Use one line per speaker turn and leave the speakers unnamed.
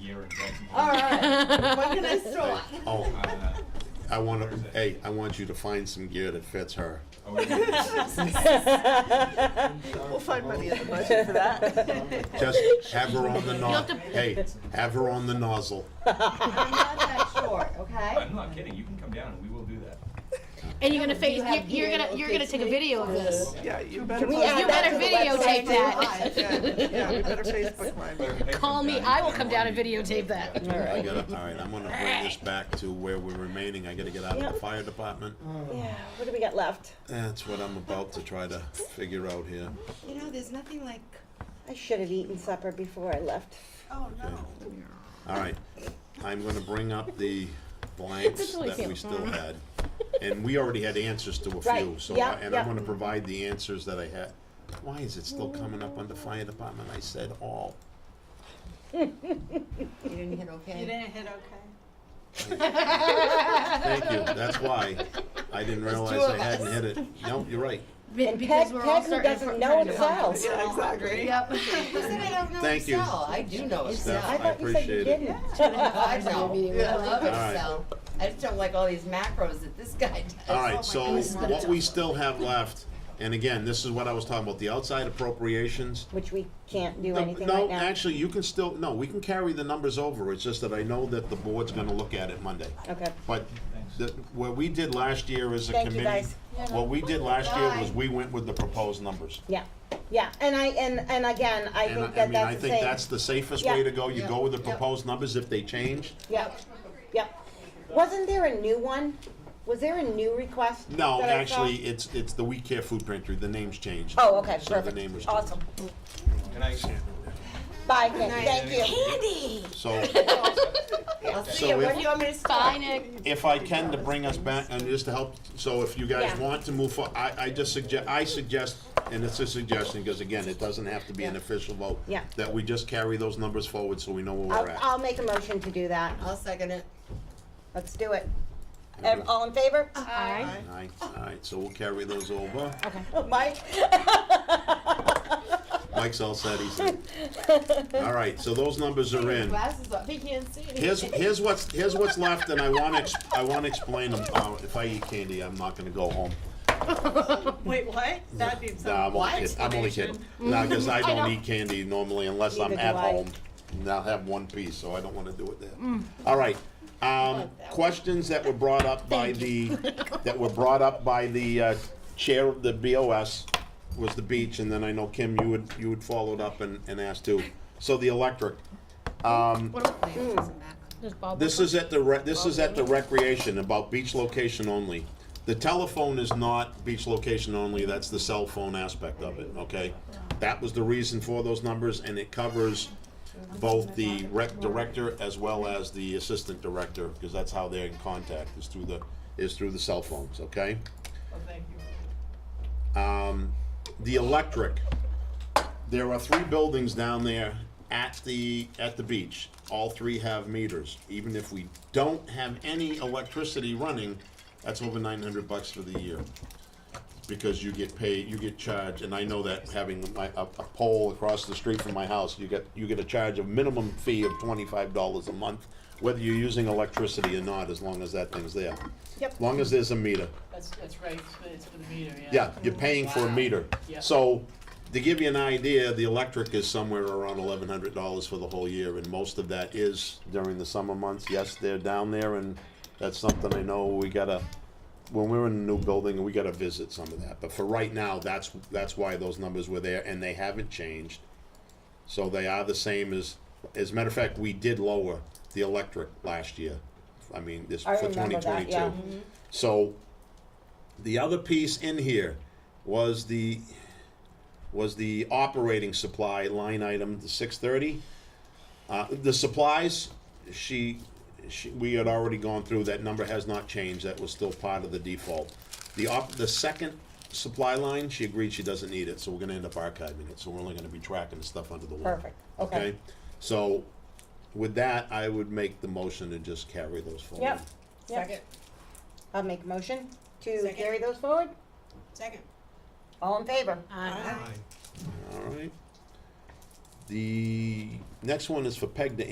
year in Jacksonville.
All right, what can I store?
Oh,
Uh,
I want to, hey, I want you to find some gear that fits her.
oh, yeah.
We'll find money in the budget for that.
Just have her on the nozzle.
to-
Hey, have her on the nozzle.
I'm not that short, okay?
I'm not kidding. You can come down and we will do that.
And you're gonna face,
you have
you're, you're
video
gonna, you're gonna take a video of this.
Yeah, you better.
we
post
add
You
that
better
to the
videotape
website.
that.
Yeah, yeah, you better
Better
Facebook mine.
pay for
Call
it,
me,
guys.
I will
don't
come
want
down and
you-
videotape that.
Yeah.
I gotta, all right, I'm gonna bring this back to where we're remaining. I gotta get out of the
Yep.
fire department.
Yeah, what do we got left?
That's what I'm about to try to figure out here.
You know, there's nothing like,
I should have eaten supper before I left.
oh
Okay.
no.
All right, I'm gonna bring up the blanks
It's really
that we
cute.
still had. And we already had answers to a few,
Right,
so,
yeah,
I- and I'm
yeah.
gonna provide the answers that I had. Why is it still coming up under fire department? I said all.
You didn't hit okay?
You didn't hit okay.
Thank you, that's why. I didn't realize I hadn't hit it. No, you're right.
Be-
And
because
Peg,
we're all
Peg who
starting to
doesn't
fr-
know
trying
it
to
sells.
Yeah, exactly.
Yep.
Who said I don't know
Thank you.
Excel. I do know Excel.
Steph,
uh, I
I
thought you said you
appreciate it.
didn't.
I know. I love
All right.
Excel. I just don't like all these macros that this guy does.
All right, so
goodness.
what we still have left, and again, this is what I was talking about, the outside appropriations.
Which we can't do
No,
anything right
No,
now.
actually, you can still, no, we can carry the numbers over, it's just that I know that the board's gonna look at it Monday.
Okay.
But the, what we did last year as a
Thank you,
committee,
guys.
what we did last year was
Bye.
we went with the proposed numbers.
Yeah, yeah, and I, and, and again, I
And
think
I I
that
mean, I
that's the
think
same.
that's the safest
Yeah.
way to go, you go with the
Yeah.
proposed numbers if they change.
Yep, yep. Wasn't there a new one? Was there a new request?
No,
that I saw?
actually, it's, it's the We Care Food Pantry, the name's changed.
Oh, okay,
So the name was
perfect. Awesome.
Can I?
Bye, Nick, thank you.
So,
I'll see
so
you.
if.
What do you want me
Bye,
to sign?
Nick.
if I can, to bring us back, and just to help, so if you guys
Yeah.
want to move for, I, I just suggest, I suggest, and it's a suggestion, because again, it doesn't have to be an official vote.
Yeah.
That we just carry those numbers forward so we know where
I'll,
we're at.
I'll make a motion to do that.
I'll second it.
Let's do it. Ev- All in favor?
Alright.
Alright, alright, so we'll carry those over.
Mike?
Mike's all set, he's in. Alright, so those numbers are in.
Glasses up. He can't see anything.
Here's, here's what's, here's what's left, and I wanna, ex- I wanna explain them. Uh, if I eat candy, I'm not gonna go home.
Wait, what? That needs
Nah, I'm
Why
only kidding. I'm only kidding.
explanation?
Nah, because I
I
don't
know.
eat candy normally unless I'm
Neither
at
do I. Mm.
home. And I'll have one piece, so I don't want to do it there. All right. Um, questions that were brought up by the, that were brought up by the uh, chair of the BOS was the beach, and then I know Kim, you would, you would followed up and, and asked too. So the electric.
What are we playing? Doesn't matter.
There's Bob.
This is at the, re- this is at the recreation, about beach location only. The telephone is not beach location only, that's the cell phone aspect of it, okay? That was the reason for those numbers, and it covers both the rec director as well as the assistant director, because that's how they're in contact, is through the, is through the cell phones, okay? Um, the electric, there are three buildings down there at the, at the beach. All three have meters. Even if we don't have any electricity running, that's over nine hundred bucks for the year. Because you get paid, you get charged, and I know that having my, a, a pole across the street from my house, you get, you get a charge of minimum fee of twenty-five dollars a month, whether you're using electricity or not, as long as that thing's there.
Yep.
Long as there's a meter.
That's, that's right, it's for- it's for the meter, yeah.
Yeah, you're paying for a meter.
Yeah.
So, to give you an idea, the electric is somewhere around eleven hundred dollars for the whole year, and most of that is during the summer months. Yes, they're down there, and that's something I know we gotta, when we're in a new building, we gotta visit some of that. But for right now, that's, that's why those numbers were there, and they haven't changed. So they are the same as, as a matter of fact, we did lower the electric last year. I mean, this,
I
for twenty
remember that, yeah.
twenty-two. So, the other piece in here was the, was the operating supply line item, the six thirty. Uh, the supplies, she, she, we had already gone through, that number has not changed, that was still part of the default. The op, the second supply line, she agreed she doesn't need it, so we're gonna end up archiving it, so we're only gonna be tracking the stuff under the wall.
Perfect, okay.
So, with that, I would make the motion to just carry those forward.
Yep,
Second,
yep. I'll make a motion to
Second.
carry those forward.
second.
All in favor?
All right. The next one is for Peg to